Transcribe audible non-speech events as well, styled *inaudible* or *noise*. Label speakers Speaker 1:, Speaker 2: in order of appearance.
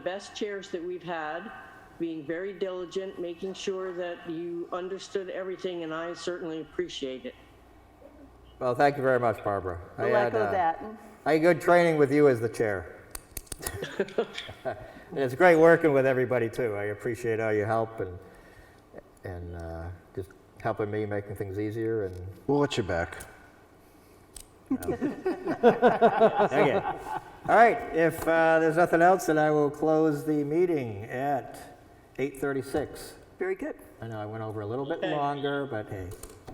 Speaker 1: best chairs that we've had, being very diligent, making sure that you understood everything, and I certainly appreciate it.
Speaker 2: Well, thank you very much, Barbara. I
Speaker 3: We'll
Speaker 2: had,
Speaker 3: echo
Speaker 2: uh,
Speaker 3: that.
Speaker 2: I had good training with you as the
Speaker 3: *laughs*
Speaker 2: chair. and it's great working with everybody too. I appreciate all your help and and uh, just helping me making things easier and
Speaker 4: We'll let you
Speaker 2: *laughs*
Speaker 4: back.
Speaker 2: okay. All right, if uh, there's nothing else, then I will close the meeting at 8:36.
Speaker 3: Very good.
Speaker 2: I know I went over a little bit longer, but hey,